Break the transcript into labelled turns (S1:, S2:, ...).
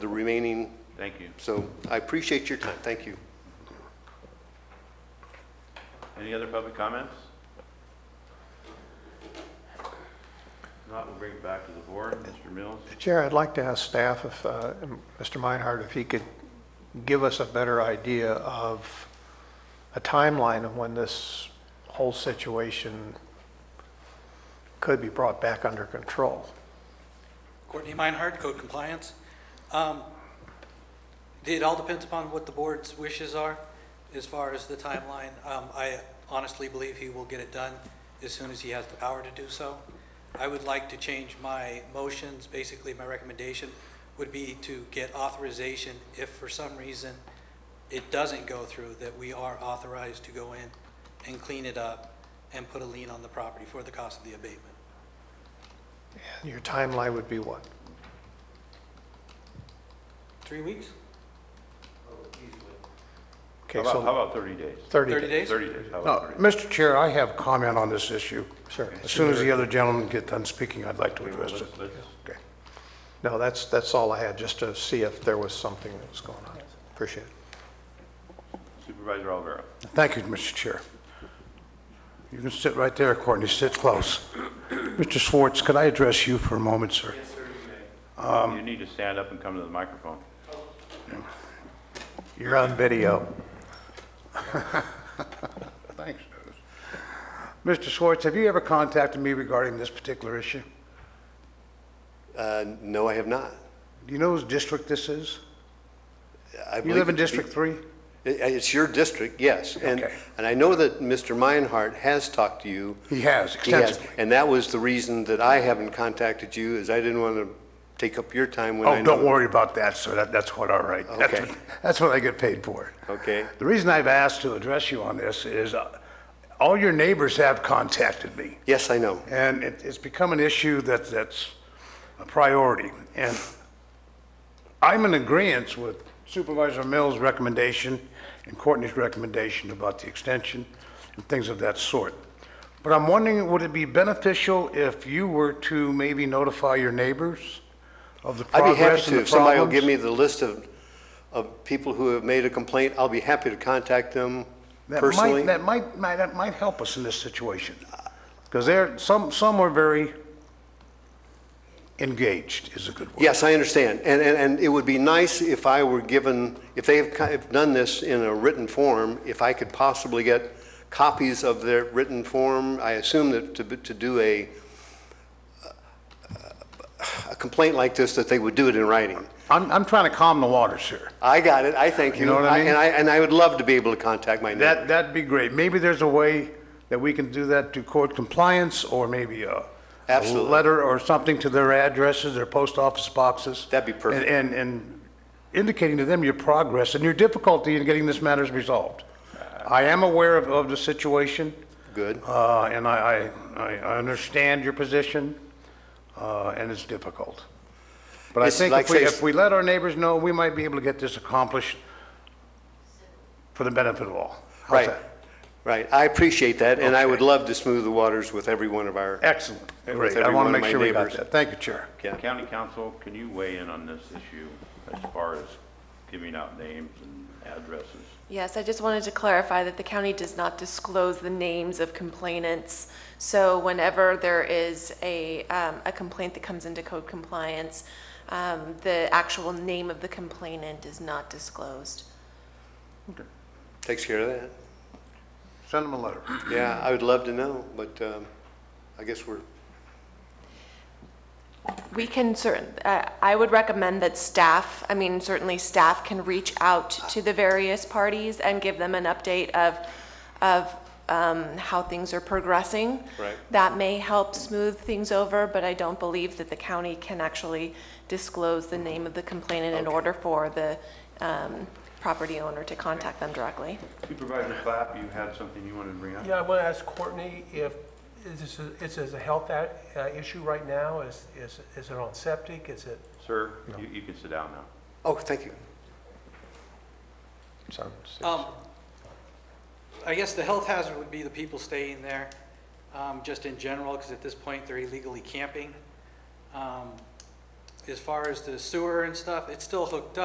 S1: remaining,
S2: Thank you.
S1: so I appreciate your time, thank you.
S2: Any other public comments? If Not, we'll bring it back to the board. Mr. Mills?
S3: Chair, I'd like to ask staff if, uh, Mr. Meinhardt, if he could give us a better idea of a timeline of when this whole situation could be brought back under control.
S4: Courtney Meinhardt, code compliance. Um, It all depends upon what the board's wishes are as far as the timeline. Um, I honestly believe he will get it done as soon as he has the power to do so. I would like to change my motions, basically my recommendation would be to get authorization if for some reason it doesn't go through, that we are authorized to go in and clean it up and put a lien on the property for the cost of the abatement.
S3: And Your timeline would be what?
S4: Three weeks?
S2: How
S3: Okay,
S2: about, how
S3: so
S2: about 30 days?
S3: 30
S4: 30
S3: days.
S4: days?
S2: 30 days, how
S5: No,
S2: about 30?
S5: Mr. Chair, I have comment on this issue.
S3: Sure.
S5: As soon as the other gentlemen get done speaking, I'd like to
S2: Okay, well,
S5: address it.
S2: let's- let's-
S5: Okay.
S3: No, that's, that's all I had, just to see if there was something that was going on. Appreciate it.
S2: Supervisor Olivera?
S5: Thank you, Mr. Chair. You can sit right there, Courtney, sit close. Mr. Schwartz, could I address you for a moment, sir?
S2: You need to stand up and come to the microphone.
S3: You're on video.
S5: Thanks. Mr. Schwartz, have you ever contacted me regarding this particular issue?
S1: Uh, No, I have not.
S5: Do you know whose district this is?
S1: I
S5: You
S1: believe
S5: live in
S1: it to be-
S5: District 3?
S1: It- It's your district, yes. And,
S5: Okay.
S1: and I know that Mr. Meinhardt has talked to you. He
S5: He has
S1: has,
S5: extensively.
S1: And that was the reason that I haven't contacted you, is I didn't want to take up your time when I
S5: Oh,
S1: know.
S5: don't worry about that, sir. That, that's what, all right. That's
S1: Okay.
S5: what- That's what I get paid for.
S1: Okay.
S5: The reason I've asked to address you on this is uh, all your neighbors have contacted me,
S1: Yes, I know.
S5: and it, it's become an issue that, that's a priority. And I'm in agreement with Supervisor Mills' recommendation and Courtney's recommendation about the extension and things of that sort. But I'm wondering, would it be beneficial if you were to maybe notify your neighbors of the
S1: I'd be happy
S5: progress and
S1: to,
S5: the
S1: if somebody will give
S5: problems?
S1: me the list of, of people who have made a complaint, I'll be happy to contact them
S5: That
S1: personally.
S5: might, that might, might, that might help us in this situation. Because there, some, some are very engaged is a good word.
S1: Yes, I understand. And, and, and it would be nice if I were given, if they have ki- have done this in a written form, if I could possibly get copies of their written form. I assume that to, to do a, a complaint like this, that they would do it in writing.
S5: I'm, I'm trying to calm the waters here.
S1: I got it. I thank you.
S5: You know what I mean?
S1: And I, and I would love to be able to contact my neighbor.
S5: That, that'd be great. Maybe there's a way that we can do that through court compliance or maybe a. a
S1: Absolutely.
S5: Letter or something to their addresses, their post office boxes.
S1: That'd be perfect.
S5: And, and- and indicating to them your progress and your difficulty in getting this matters resolved.
S1: Uh,
S5: I am aware of, of the situation.
S1: Good.
S5: Uh, and I, I, I I understand your position, uh, and it's difficult. But I
S1: It's
S5: think
S1: like
S5: if we,
S1: say-
S5: if we let our neighbors know, we might be able to get this accomplished for the benefit of all. How's
S1: Right.
S5: that?
S1: Right. I appreciate that. And I would love to smooth the waters with every one of our.
S5: Excellent,
S1: With
S5: great. I
S1: every one
S5: want
S1: of
S5: to make
S1: my
S5: sure we got
S1: neighbors.
S5: that. Thank you, Chair.
S1: Yeah.
S2: County Council, can you weigh in on this issue as far as giving out names and addresses?
S6: Yes, I just wanted to clarify that the county does not disclose the names of complainants. So whenever there is a, um, a complaint that comes into code compliance, um, the actual name of the complainant is not disclosed.
S1: Takes care of that.
S5: Send them a letter.
S1: Yeah, I would love to know, but um, I guess we're,
S6: We can certain, uh, I would recommend that staff, I mean, certainly staff can reach out to the various parties and give them an update of, of um, how things are progressing.
S1: Right.
S6: That may help smooth things over, but I don't believe that the county can actually disclose the name of the complainant in order for the um, property owner to contact them directly.
S2: Supervisor Clapp, you had something you wanted to bring up?
S7: Yeah, I want to ask Courtney if, is this, a- is this a health a- uh, issue right now? Is, is, is it on septic? Is it?
S2: Sir, you, you can sit down now.
S1: oh, thank you.
S3: Sounds-
S4: Um, I guess the health hazard would be the people staying there, um, just in general, because at this point, they're illegally camping. Um, as far as the sewer and stuff, it's still hooked up.